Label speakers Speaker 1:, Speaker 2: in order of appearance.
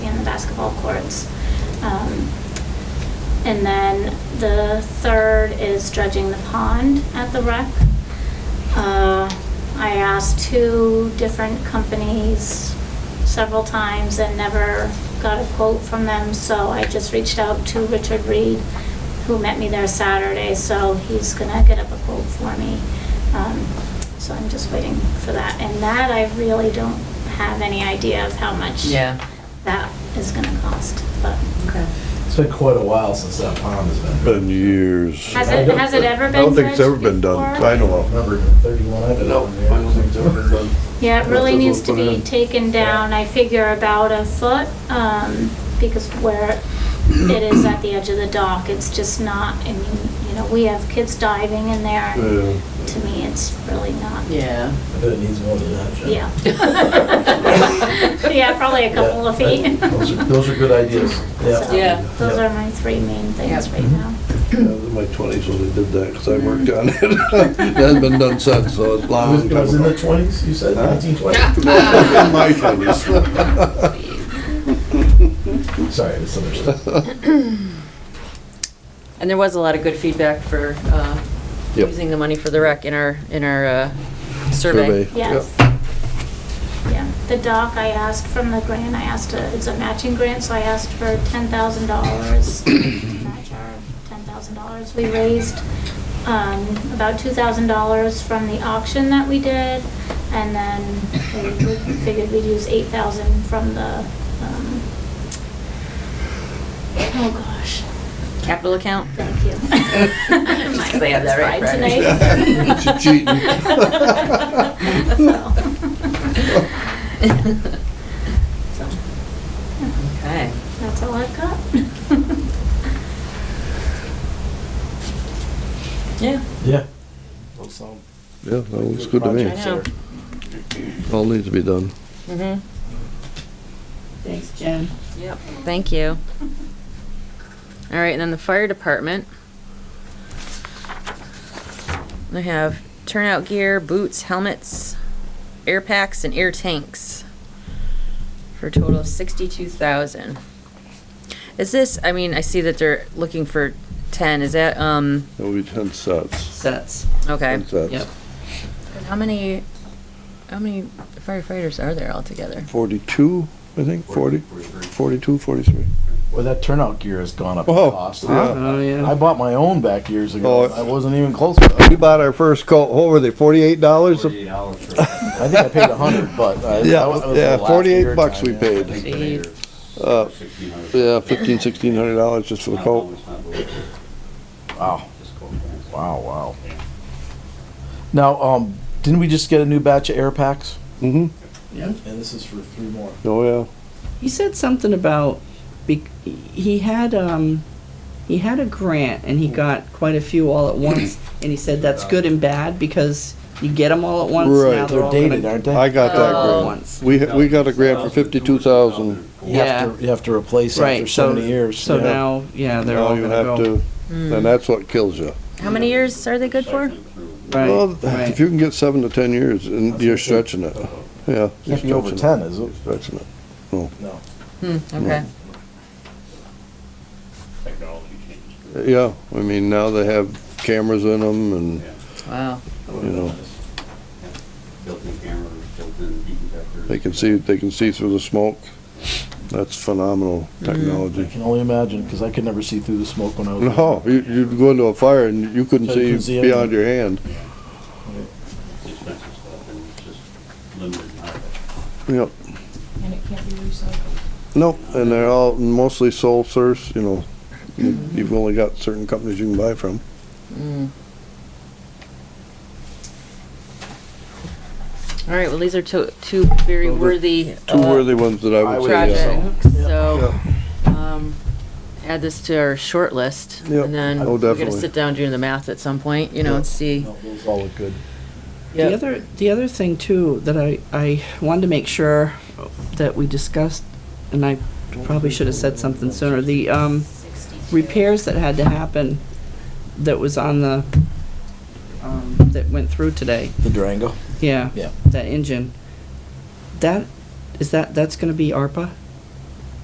Speaker 1: basketball courts. Um, And then the third is dredging the pond at the rec. Uh, I asked two different companies several times and never got a quote from them, so I just reached out to Richard Reed, who met me there Saturday, so he's gonna get up a quote for me. Um, So I'm just waiting for that, and that I really don't have any idea of how much
Speaker 2: Yeah.
Speaker 1: that is gonna cost, but.
Speaker 2: Okay.
Speaker 3: It's been quite a while since that pond has been.
Speaker 4: Been years.
Speaker 1: Has it, has it ever been
Speaker 4: I don't think it's ever
Speaker 1: dredged
Speaker 4: been done,
Speaker 1: before?
Speaker 4: I know of.
Speaker 3: Remember thirty-one? I don't
Speaker 5: No, I don't think it's ever been done.
Speaker 1: Yeah, it really
Speaker 5: That's
Speaker 1: needs to
Speaker 5: what we'll put
Speaker 1: be
Speaker 5: in.
Speaker 1: taken down, I figure about a foot, um, because where it is at the edge of the dock, it's just not, I mean, you know, we have kids diving in there, and
Speaker 5: Yeah.
Speaker 1: to me, it's really not,
Speaker 2: Yeah.
Speaker 3: I bet it needs more than that, Jen.
Speaker 1: yeah. Yeah, probably a couple of
Speaker 3: Yeah,
Speaker 1: feet.
Speaker 3: Those are, those are good ideas.
Speaker 1: So,
Speaker 2: Yeah.
Speaker 1: Those are my three main things
Speaker 2: Yep.
Speaker 1: right now.
Speaker 4: Yeah, it was in my twenties when they did that, because I worked on it. It hasn't been done since, so it's
Speaker 3: I was,
Speaker 4: long
Speaker 3: it was in
Speaker 4: time
Speaker 3: the
Speaker 4: ago.
Speaker 3: twenties, you said,
Speaker 4: Huh?
Speaker 3: nineteen twenty?
Speaker 4: Well, In my twenties.
Speaker 3: Sorry, I misunderstood.
Speaker 2: And there was a lot of good feedback for uh,
Speaker 4: Yep.
Speaker 2: using the money for the rec in our, in our uh, survey.
Speaker 1: Yes. Yeah, the dock, I asked from the grant, I asked, uh, it's a matching grant, so I asked for ten thousand dollars. Match our ten thousand dollars. We raised, um, about two thousand dollars from the auction that we did. And then we- we figured we'd use eight thousand from the, um, oh gosh,
Speaker 2: Capital account?
Speaker 1: thank you.
Speaker 2: Just 'cause I have that right
Speaker 1: My
Speaker 2: Friday.
Speaker 1: head's fried
Speaker 4: She's
Speaker 1: cheating.
Speaker 4: cheating.
Speaker 1: So,
Speaker 2: Okay.
Speaker 1: That's all I've got.
Speaker 2: Yeah.
Speaker 3: Yeah.
Speaker 4: Yeah, that looks good to me.
Speaker 2: I know.
Speaker 4: All needs to be done.
Speaker 2: Mm-hmm.
Speaker 6: Thanks, Jen.
Speaker 2: Yep, thank you. All right, and then the fire department. They have turnout gear, boots, helmets, air packs, and air tanks for a total of sixty-two thousand. Is this, I mean, I see that they're looking for ten, is that, um,
Speaker 4: That would be ten sets.
Speaker 6: Sets.
Speaker 2: okay.
Speaker 4: Ten sets.
Speaker 6: Yep.
Speaker 2: How many, how many firefighters are there altogether?
Speaker 4: Forty-two, I think, forty, forty-two, forty-three.
Speaker 3: Well, that turnout gear has gone up in
Speaker 4: Oh,
Speaker 3: cost.
Speaker 4: yeah.
Speaker 5: Oh,
Speaker 3: I
Speaker 5: yeah.
Speaker 3: bought my own back years
Speaker 4: Oh,
Speaker 3: ago.
Speaker 4: it-
Speaker 3: I wasn't even close to that.
Speaker 4: We bought our first coat, what were they, forty-eight dollars?
Speaker 3: I think I paid a hundred, but I.
Speaker 4: Yeah,
Speaker 3: that was the
Speaker 4: yeah,
Speaker 3: last
Speaker 4: forty-eight
Speaker 3: year
Speaker 4: bucks
Speaker 3: time,
Speaker 4: we
Speaker 3: yeah.
Speaker 4: paid. Uh, Yeah, fifteen, sixteen hundred dollars just for the coat.
Speaker 3: Wow, wow, wow. Now, um, didn't we just get a new batch of air packs?
Speaker 4: hmm
Speaker 3: And this is for three more.
Speaker 4: oh yeah.
Speaker 6: He said something about, bec- he had, um, he had a grant and he got quite a few all at once. And he said that's good and bad because you get them all at once, now
Speaker 4: Right.
Speaker 6: they're
Speaker 3: They're
Speaker 6: all gonna
Speaker 3: dated,
Speaker 6: go
Speaker 3: aren't they?
Speaker 4: I got that
Speaker 6: all at
Speaker 4: grant.
Speaker 6: once.
Speaker 4: We, we got a grant for fifty-two thousand.
Speaker 3: You have to, you have to replace after
Speaker 6: Right,
Speaker 3: so
Speaker 6: so,
Speaker 3: many years.
Speaker 6: so
Speaker 3: yeah.
Speaker 6: now, yeah, they're all
Speaker 4: Now you
Speaker 6: gonna
Speaker 4: have
Speaker 6: go.
Speaker 4: to,
Speaker 2: Hmm.
Speaker 4: and that's what kills you.
Speaker 2: How many years are they good for?
Speaker 4: Well,
Speaker 6: Right,
Speaker 4: if
Speaker 6: right.
Speaker 4: you can get seven to ten years, and you're stretching it, yeah. you're
Speaker 3: Can't be over
Speaker 4: stretching
Speaker 3: ten,
Speaker 4: it.
Speaker 3: is it?
Speaker 4: Stretching it.
Speaker 3: No.
Speaker 2: Hmm, okay.
Speaker 4: Yeah, I mean, now they have cameras in them and,
Speaker 2: Wow.
Speaker 4: you know, they can see, they can see through the smoke. That's phenomenal
Speaker 3: I
Speaker 4: technology.
Speaker 3: can only imagine, cause I could never see through the smoke when I was.
Speaker 4: No, you, you'd go into a fire and you couldn't
Speaker 3: So you couldn't
Speaker 4: see
Speaker 3: see
Speaker 4: beyond your hand. Yep.
Speaker 7: And it can't be recycled.
Speaker 4: Nope, and they're all mostly sole source, you know, you- you've only got certain companies you can buy from.
Speaker 2: Mm. All right, well, these are two, two very
Speaker 4: Well, the-
Speaker 2: worthy.
Speaker 4: Two
Speaker 2: uh,
Speaker 4: worthy ones that I would say, uh, yeah.
Speaker 2: Projects, so, um, add this to our short list.
Speaker 4: Yep.
Speaker 2: And then
Speaker 4: Oh,
Speaker 2: we're gonna
Speaker 4: definitely.
Speaker 2: sit down doing the math at some point, you know, and see.
Speaker 3: No, Those all look good.
Speaker 6: The other, the other thing too, that I, I wanted to make sure that we discussed, and I probably should have said something sooner, the, um, repairs that had to happen that was on the, um, that went through today,
Speaker 3: The Durango.
Speaker 6: yeah.
Speaker 3: Yeah.
Speaker 6: That engine, that, is that, that's gonna be ARPA?